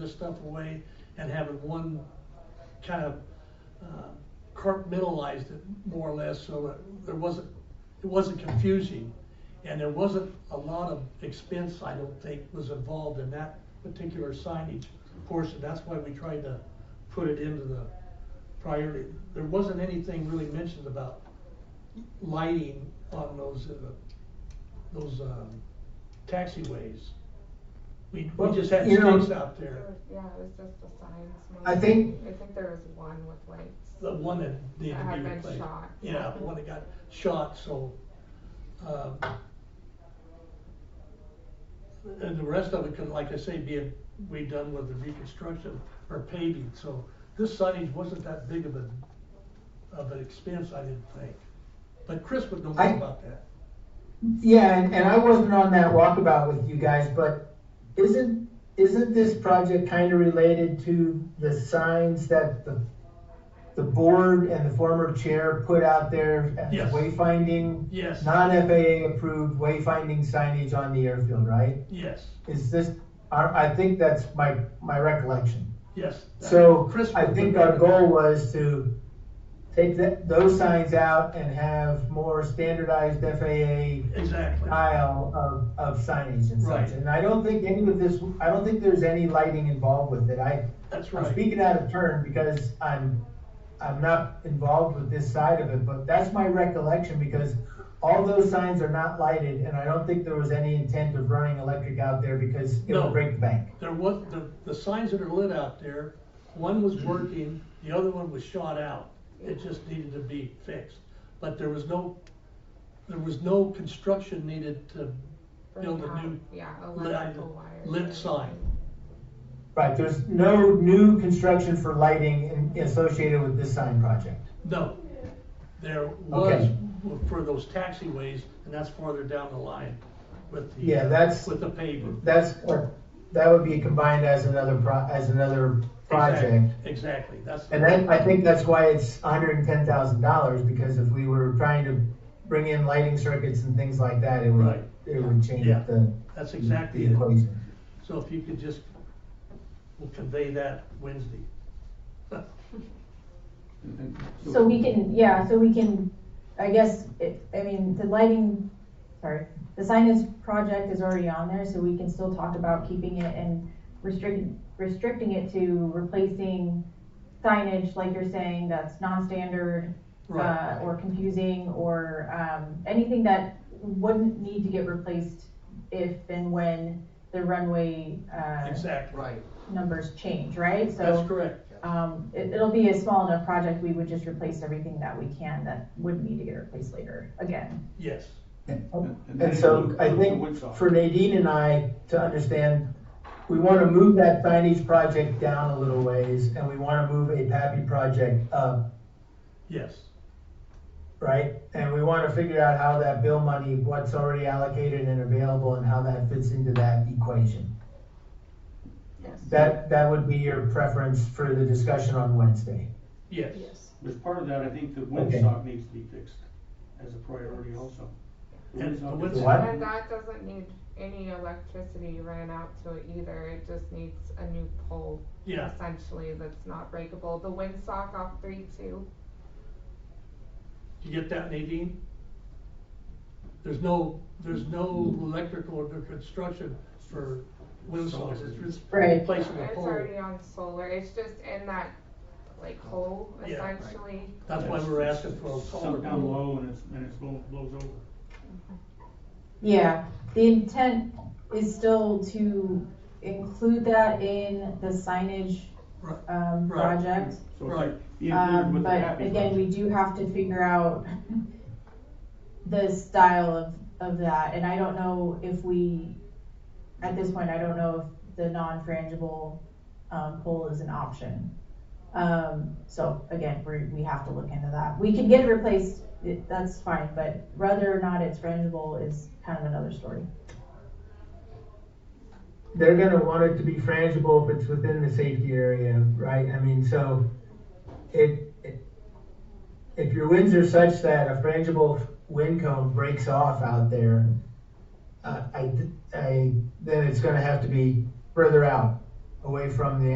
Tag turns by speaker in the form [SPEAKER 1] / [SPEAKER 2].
[SPEAKER 1] this stuff away and having one kind of uh, compartmentalized it more or less so that there wasn't, it wasn't confusing. And there wasn't a lot of expense, I don't think, was involved in that particular signage portion. That's why we tried to put it into the priority. There wasn't anything really mentioned about lighting on those, uh, those um, taxiways. We, we
[SPEAKER 2] Well,
[SPEAKER 1] just had
[SPEAKER 2] you know-
[SPEAKER 1] stakes out there.
[SPEAKER 3] Yeah, it was just the signs.
[SPEAKER 2] I
[SPEAKER 3] maybe.
[SPEAKER 2] think-
[SPEAKER 3] I think there was one with lights.
[SPEAKER 1] The one that needed
[SPEAKER 3] That
[SPEAKER 1] to
[SPEAKER 3] had
[SPEAKER 1] be
[SPEAKER 3] been
[SPEAKER 1] replaced.
[SPEAKER 3] shot.
[SPEAKER 1] Yeah, the one that got shot, so, um, and the rest of it could, like I say, be, be done with the reconstruction or paving, so this signage wasn't that big of a, of an expense, I didn't think. But Chris would know more
[SPEAKER 2] I-
[SPEAKER 1] about that.
[SPEAKER 2] Yeah, and, and I wasn't on that walkabout with you guys, but isn't, isn't this project kind of related to the signs that the, the board and the former chair put out there as
[SPEAKER 1] Yes.
[SPEAKER 2] wayfinding?
[SPEAKER 1] Yes.
[SPEAKER 2] Non-FAA approved wayfinding signage on the airfield, right?
[SPEAKER 1] Yes,
[SPEAKER 2] Is this, I, I think that's my, my recollection.
[SPEAKER 1] yes. that-
[SPEAKER 2] So
[SPEAKER 1] Uh, Chris
[SPEAKER 2] I
[SPEAKER 1] would
[SPEAKER 2] think
[SPEAKER 1] know
[SPEAKER 2] our
[SPEAKER 1] better.
[SPEAKER 2] goal was to take that, those signs out and have more standardized FAA
[SPEAKER 1] Exactly.
[SPEAKER 2] aisle of, of signage and
[SPEAKER 1] Right.
[SPEAKER 2] such. And I don't think any of this, I don't think there's any lighting involved with it. I,
[SPEAKER 1] That's
[SPEAKER 2] I'm
[SPEAKER 1] right.
[SPEAKER 2] speaking out of turn because I'm, I'm not involved with this side of it, but that's my recollection because all those signs are not lighted and I don't think there was any intent of running electric out there because it
[SPEAKER 1] No.
[SPEAKER 2] would break the bank.
[SPEAKER 1] There was, the, the signs that are lit out there, one
[SPEAKER 2] Mm-hmm.
[SPEAKER 1] was working, the other one was shot out. It just needed to be fixed. But there was no, there was no construction needed to build a
[SPEAKER 3] Bring
[SPEAKER 1] new,
[SPEAKER 3] out, Yeah, electrical wires.
[SPEAKER 1] lit
[SPEAKER 3] and
[SPEAKER 1] sign.
[SPEAKER 3] everything.
[SPEAKER 2] Right, there's no new construction for lighting in- associated with this sign project.
[SPEAKER 1] no. There was
[SPEAKER 2] Okay.
[SPEAKER 1] for those taxiways, and that's farther down the line with the. uh,
[SPEAKER 2] Yeah, that's-
[SPEAKER 1] With the paving.
[SPEAKER 2] That's, that would be combined as another pro, as another project.
[SPEAKER 1] Exact- Exactly, that's.
[SPEAKER 2] And that, I think that's why it's hundred and ten thousand dollars, because if we were trying to bring in lighting circuits and things like that, it
[SPEAKER 1] Right.
[SPEAKER 2] would, it would change
[SPEAKER 1] Yeah.
[SPEAKER 2] the.
[SPEAKER 1] That's exactly
[SPEAKER 2] The
[SPEAKER 1] it.
[SPEAKER 2] equation.
[SPEAKER 1] So if you could just, we'll convey that Wednesday.
[SPEAKER 4] So we can, yeah, so we can, I guess, it, I mean, the lighting, sorry, the signage project is already on there, so we can still talk about keeping it and restricting, restricting it to replacing signage, like you're saying, that's non-standard, uh, or confusing, or, um, anything that wouldn't need to get replaced if and when the runway, uh,
[SPEAKER 1] Exactly. Right.
[SPEAKER 4] numbers change, right? So.
[SPEAKER 1] That's correct.
[SPEAKER 4] Um, it, it'll be a small enough project, we would just replace everything that we can that would need to get replaced later, again.
[SPEAKER 1] Yes.
[SPEAKER 2] And so I think for Nadine and I to understand, we want to move that signage project down a little ways, and we want to move a PAPI project up,
[SPEAKER 1] Yes.
[SPEAKER 2] right? And we want to figure out how that bill money, what's already allocated and available, and how that fits into that equation.
[SPEAKER 3] Yes.
[SPEAKER 2] That, that would be your preference for the discussion on Wednesday.
[SPEAKER 1] Yes.
[SPEAKER 3] Yes.
[SPEAKER 5] As part of that, I think the
[SPEAKER 2] Okay.
[SPEAKER 5] windsock needs to be fixed as a priority also. The
[SPEAKER 1] And the
[SPEAKER 5] windsock-
[SPEAKER 1] windsock-
[SPEAKER 2] What?
[SPEAKER 3] And that doesn't need any electricity ran out to it either, it just needs a new pole.
[SPEAKER 1] Yeah.
[SPEAKER 3] Essentially, that's not breakable, the windsock off three two,
[SPEAKER 1] You get that, Nadine? There's no, there's no electrical or construction for windsocks. It's just
[SPEAKER 4] Right.
[SPEAKER 1] replacing a
[SPEAKER 3] it's
[SPEAKER 1] pole.
[SPEAKER 3] already on solar, it's just in that like hole
[SPEAKER 1] Yeah, right.
[SPEAKER 3] essentially.
[SPEAKER 1] That's why we're asking for a
[SPEAKER 5] Sunk down
[SPEAKER 1] taller.
[SPEAKER 5] low and it's, and it's blow- blows over.
[SPEAKER 4] Yeah, the intent is still to include that in the signage,
[SPEAKER 1] Right. Right.
[SPEAKER 4] um, project.
[SPEAKER 5] So it's
[SPEAKER 1] Right.
[SPEAKER 5] like being included
[SPEAKER 4] Um,
[SPEAKER 5] with the
[SPEAKER 4] but
[SPEAKER 5] happy
[SPEAKER 4] again, we do have to figure out the style of, of that, and I don't know if we, at this point, I don't know if the non-frangible, um, pole is an option. Um, so again, we, we have to look into that. We can get it replaced, it- that's fine, but whether or not it's frangible is kind of another story.
[SPEAKER 2] They're gonna want it to be frangible if it's within the safety area, right? I mean, so it, it- if your winds are such that a frangible wind cone breaks off out there, uh, I, I, then it's gonna have to be further out away from the